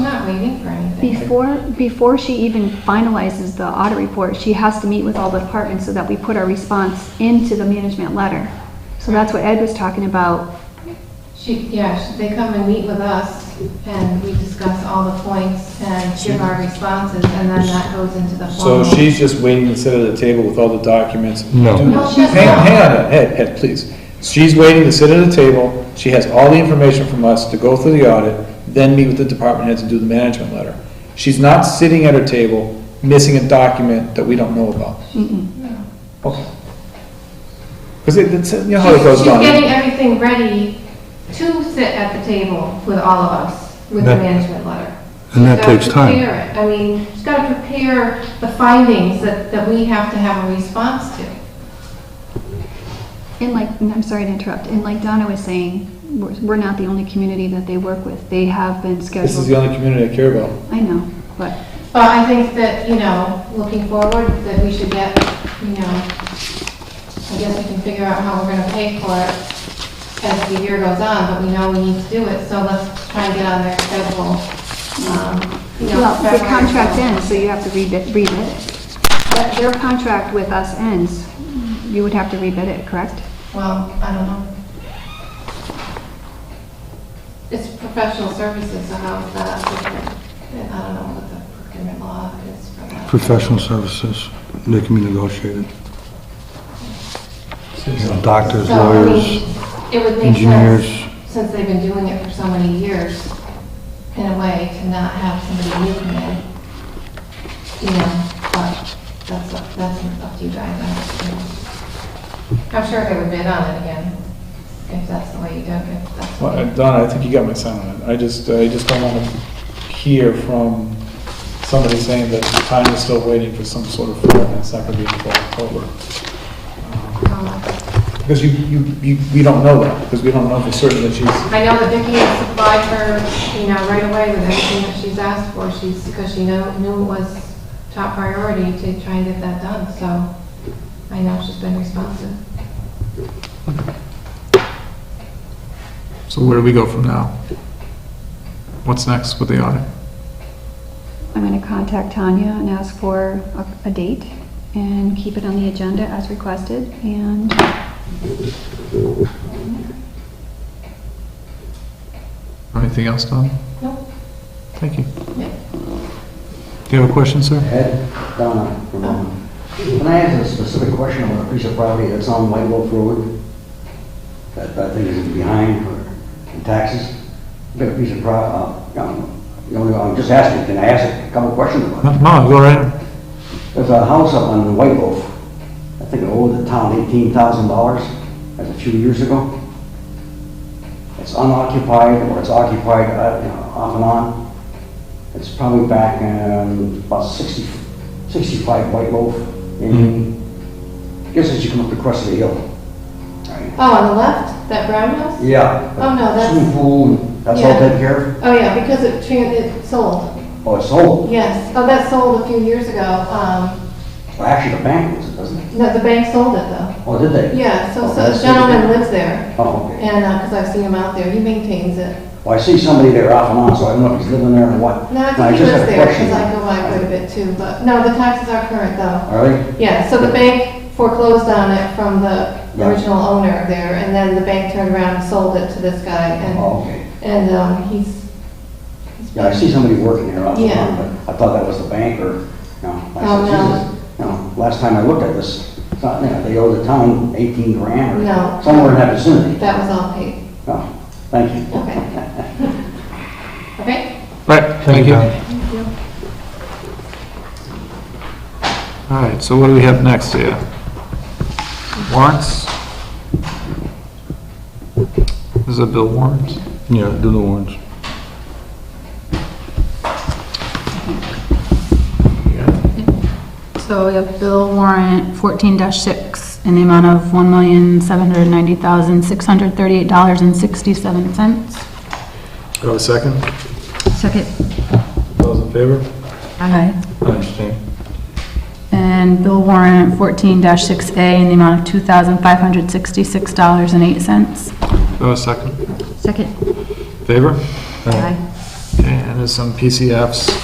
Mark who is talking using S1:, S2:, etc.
S1: before, before she even finalizes the audit report, she has to meet with all the departments so that we put our response into the management letter. So that's what Ed was talking about.
S2: She, yeah, she- they come and meet with us, and we discuss all the points and give our responses, and then that goes into the formal.
S3: So she's just waiting to sit at the table with all the documents?
S4: No.
S3: Do-
S2: No, she's
S3: Hang
S2: not.
S3: on, hang on, Ed, Ed, please. She's waiting to sit at a table, she has all the information from us to go through the audit, then meet with the department heads and do the management letter. She's not sitting at her table, missing a document that we don't know about. Okay. Because it, it's, you know how it
S2: She's-
S3: goes
S2: She's getting
S3: on.
S2: everything ready to sit at the table with all of us, with the
S4: That-
S2: management letter.
S4: and that
S2: She's gotta
S4: takes time.
S2: prepare it. I mean, she's got to prepare the findings that, that we have to have a response to.
S1: And like, and I'm sorry to interrupt, and like Donna was saying, we're, we're not the only community that they work with. They have been
S3: This is the
S1: scheduled.
S3: only community I care about.
S1: I know, but
S2: But I think that, you know, looking forward, that we should get, you know, I guess we can figure out how we're gonna pay for it as the year goes on, but we know we need to do it, so let's try and get on their schedule. um, you know,
S1: Well, the
S2: February.
S1: contract ends, so you have to rebid, rebid it. But Their contract with us ends, you would have to rebid it, correct?
S2: Well, I don't know. It's professional services, so how is that different? And I don't know what the procurement law is for that.
S4: Professional services, they can be negotiated. You know, Doctors,
S2: So, I mean,
S4: lawyers,
S2: It would make
S4: engineers.
S2: sense, since they've been doing it for so many years, in a way, to not have somebody new come in. You know, but that's, up- that's up to you guys. I don't know. I'm sure they would bid on it again, if that's the way you do it, if that's
S3: Well, uh,
S2: what.
S3: Donna, I think you got my sound on it. I just, I just don't want to hear from somebody saying that time is still waiting for some sort of form, and it's not going to be until October.
S2: um,
S3: Because you, you, you, we don't know that, because we don't know for certain that she's,
S2: I know that Vicki has supplied her, you know, right away with everything that she's asked for, she's, because she know- knew it was top priority to try and get that done, so I know she's been responsive.
S3: so where do we go from now? What's next with the audit?
S1: I'm gonna contact Tanya and ask for a, a date and keep it on the agenda as requested and
S3: Anything else, Donna?
S2: Nope.
S3: Thank you.
S2: Yeah.
S3: Do you have a question, sir?
S5: Ed, Donna, for a moment. Can I ask a specific question about a piece of property that's on White Wolf Road? That, that thing is behind for in taxes? I've Got a piece of pro, uh, um, you know, I'm just asking, can I ask a couple questions about it?
S3: No, go right ahead.
S5: There's a house up on White Wolf. I think it owed the town eighteen thousand dollars, that's a few years ago. It's unoccupied, or it's occupied, uh, you know, off and on. It's probably back, um, about 60 65 White Wolf, in guess as you come up the crest of the hill. Right.
S2: Oh, on the left, that brown house?
S5: Yeah.
S2: Oh, no, that's-
S5: Swimming pool, and that's all
S2: Yeah.
S5: taken care of?
S2: Oh, yeah, because it, tran- it sold,
S5: Oh, it's sold.
S2: yes, oh, that sold a few years ago, um,
S5: Well, actually, the bank owns it, doesn't it?
S2: no, the bank sold it though.
S5: Oh, did they?
S2: Yeah, so,
S5: Oh,
S2: so the
S5: that's-
S2: gentleman lives there,
S5: Oh, okay.
S2: and, uh, because I've seen him out there, he maintains it.
S5: Well, I see somebody there off and on, so I don't know if he's living there or what.
S2: No, I
S5: And
S2: think he
S5: just
S2: lives
S5: had a
S2: there,
S5: question.
S2: because I go by quite a bit too, but, no, the taxes are current though.
S5: All right,
S2: Yeah, so the bank foreclosed on it from the
S5: Yeah.
S2: original owner there, and then the bank turned around and sold it to this guy, and,
S5: oh, okay.
S2: and, um, he's. he's
S5: Yeah, I see somebody working there off and
S2: Yeah.
S5: on, but I thought that was the bank or, no. I
S2: Oh,
S5: said,
S2: no.
S5: "Jesus." No, last time I looked at this, it's not, you know, they owe the town eighteen grand
S2: No.
S5: or somewhere in that vicinity.
S2: That was all paid,
S5: No, thank you.
S2: okay. Okay,
S3: Right,
S4: Thank you, Don.
S3: All right, so what do we have next here? Warrants? Is it bill warrants?
S4: Yeah, do the warrants.
S6: So we have bill warrant fourteen six in the amount of one million, seven hundred ninety thousand, six hundred thirty-eight dollars and sixty-seven cents.
S3: Do I have a second?
S6: Second.
S3: Those in favor?
S6: Aye.
S4: I understand.
S6: And bill warrant fourteen six A in the amount of two thousand, five hundred sixty-six dollars and eight cents.
S3: Do I have Oh, a second?
S6: Second.
S3: Favor?
S6: Aye.
S3: Okay, and there's some PCFs.